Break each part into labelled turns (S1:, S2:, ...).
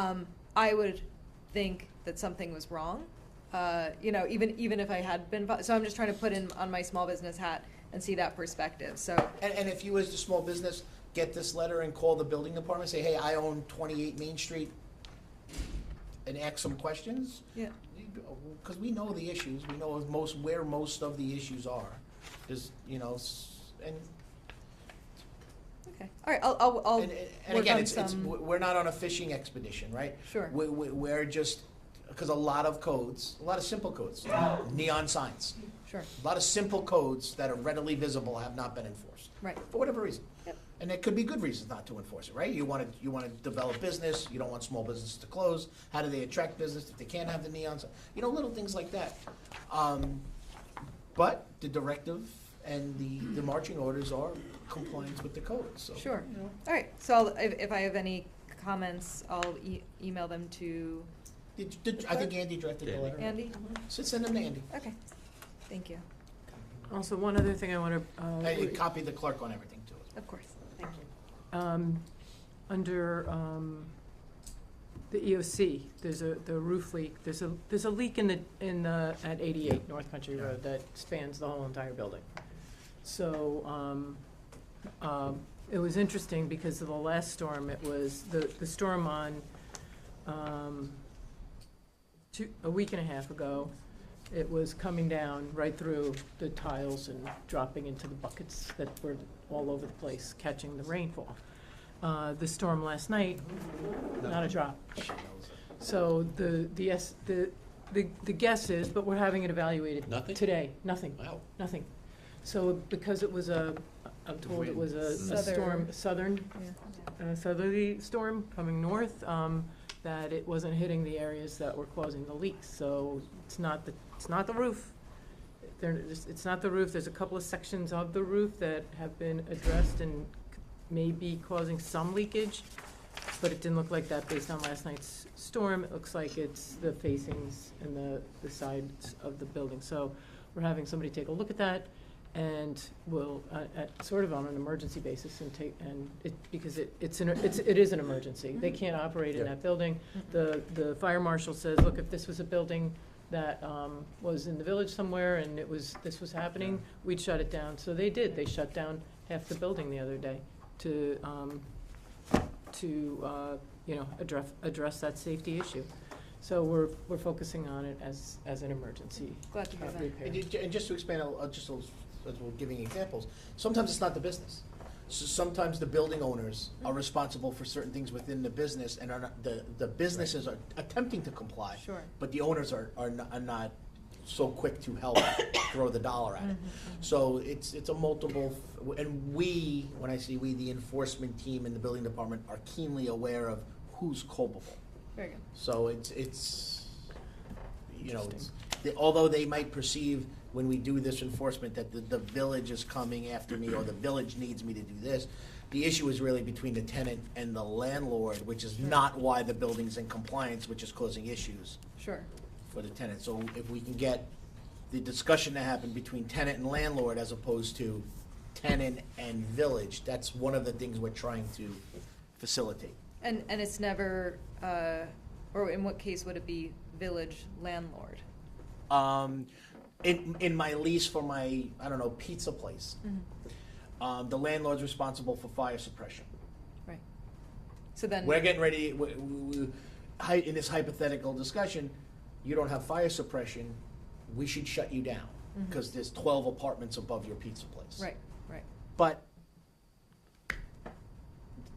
S1: um, I would think that something was wrong. Uh, you know, even even if I had been, vi- so I'm just trying to put in on my small business hat and see that perspective. So
S2: And, and if you as a small business, get this letter and call the building department, say, hey, I own twenty-eight Main Street, and ask some questions,
S1: yeah,
S2: because we know the issues, we know of most, where most of the issues are, is, you know, s- and,
S1: okay, all right. I'll I'll, I'll
S2: and, and
S1: work
S2: again,
S1: on
S2: it's, it's,
S1: Oh, some-
S2: we're not on a fishing expedition, right?
S1: sure.
S2: We, we, we're just, because a lot of codes, a lot of simple codes, neon signs,
S1: Sure.
S2: a lot of simple codes that are readily visible have not been enforced.
S1: Right.
S2: for whatever reason.
S1: Yep.
S2: And there could be good reasons not to enforce it, right? You want to, you want to develop business, you don't want small businesses to close, how do they attract business if they can't have the neons? You know, little things like that. Um, But the directive and the, the marching orders are compliance with the code, so.
S1: Sure.
S2: you know,
S1: All right. So I'll, if, if I have any comments, I'll e- email them to
S2: Did, did, I think Andy directed the letter.
S1: Andy.
S2: So send them to Andy.
S1: Okay. Thank you.
S3: Also, one other thing I uh, want
S2: And you
S3: to,
S2: copy the clerk on everything too.
S1: Of course. Thank you.
S3: um, under, um, the EOC, there's a, the roof leak, there's a, there's a leak in the, in the, at eighty-eight North Country
S2: Yeah.
S3: Road that spans the whole entire building. So, um, um, it was interesting because of the last storm, it was the, the storm on, um, two, a week and a half ago, it was coming down right through the tiles and dropping into the buckets that were all over the place, catching the rainfall. Uh, the storm last night, not a drop.
S2: She knows it.
S3: So the, the, es- the, the the guess is, but we're having it evaluated
S4: Nothing?
S3: today, nothing,
S4: Wow.
S3: nothing. So because it was a, I'm told it was a a
S1: Southern.
S3: storm, southern,
S1: Yeah.
S3: uh, southerly storm coming north, um, that it wasn't hitting the areas that were causing the leaks. So it's not the, it's not the roof. There, it's it's not the roof. There's a couple of sections of the roof that have been addressed and c- may be causing some leakage, but it didn't look like that based on last night's storm. It looks like it's the facings and the, the sides of the building. So we're having somebody take a look at that and will, uh, at, sort of on an emergency basis and take, and it, because it, it's an, it's, it is an emergency. They can't operate in
S4: Yeah.
S3: that building. The, the fire marshal says, look, if this was a building that, um, was in the village somewhere and it was, this was happening, we'd shut it down. So they did. They shut down half the building the other day to, um, to, uh, you know, address, address that safety issue. So we're, we're focusing on it as, as an emergency
S1: Glad to hear
S3: uh,
S1: that.
S3: repair.
S2: And ju- And just to expand, a- uh, just a- as we're giving examples, sometimes it's not the business. So Sometimes the building owners are responsible for certain things within the business and are not, the, the businesses are attempting to comply.
S1: Sure.
S2: But the owners are, are not, are not so quick to help throw the dollar at it. So it's, it's a multiple, f- and we, when I say we, the enforcement team and the building department are keenly aware of who's culpable.
S1: Very good.
S2: So it's, it's, you know, it's,
S3: Interesting.
S2: the- although they might perceive when we do this enforcement that the, the village is coming after me or the village needs me to do this, the issue is really between the tenant and the landlord, which is not why the building's in compliance, which is causing issues
S1: Sure.
S2: for the tenant. So if we can get the discussion to happen between tenant and landlord as opposed to tenant and village, that's one of the things we're trying to facilitate.
S1: And and it's never, uh, or in what case would it be village landlord?
S2: um, in, in my lease for my, I don't know, pizza place, um, the landlord's responsible for fire suppression.
S1: Right. So then.
S2: We're getting ready, we, we, we- hy- in this hypothetical discussion, you don't have fire suppression, we should shut you down, because there's twelve apartments above your pizza place.
S1: Right. Right.
S2: But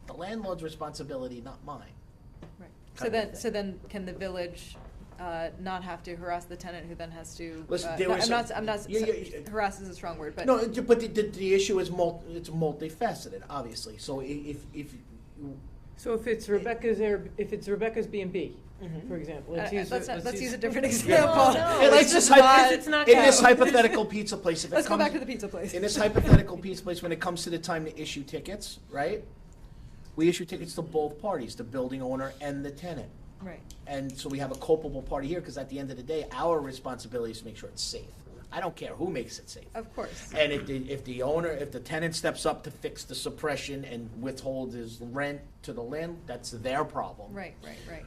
S2: the landlord's responsibility, not mine.
S1: Right.
S2: kind
S1: So
S2: of
S1: then,
S2: thing.
S1: so then can the village uh, not have to harass the tenant who then has to?
S2: Listen,
S1: uh,
S2: there
S1: no,
S2: was
S1: I'm not,
S2: some-
S1: I'm not,
S2: Yeah, yeah, yeah.
S1: harass is a strong word, but.
S2: No, it- but the, the, the issue is mul, it's multifaceted, obviously, so i- if, if, you-
S3: So if it's Rebecca's Air, if it's Rebecca's B and B, for example,
S1: uh,
S3: let's use.
S1: Let's
S3: a-
S1: not, let's use a different
S3: Yeah.
S1: example.
S3: No,
S2: Hey,
S3: no,
S2: let's
S3: it's
S2: just
S3: just
S2: hypo-
S3: not, it's not
S2: in this
S3: go.
S2: hypothetical pizza place, if it
S1: Let's go
S2: comes-
S1: back to the pizza place.
S2: in this hypothetical pizza place, when it comes to the time to issue tickets, right? We issue tickets to both parties, the building owner and the tenant.
S1: Right,
S2: And so we have a culpable party here, because at the end of the day, our responsibility is to make sure it's safe. I don't care who makes it safe.
S1: of course.
S2: And if the, if the owner, if the tenant steps up to fix the suppression and withhold his rent to the land, that's their problem.
S1: Right, right, right.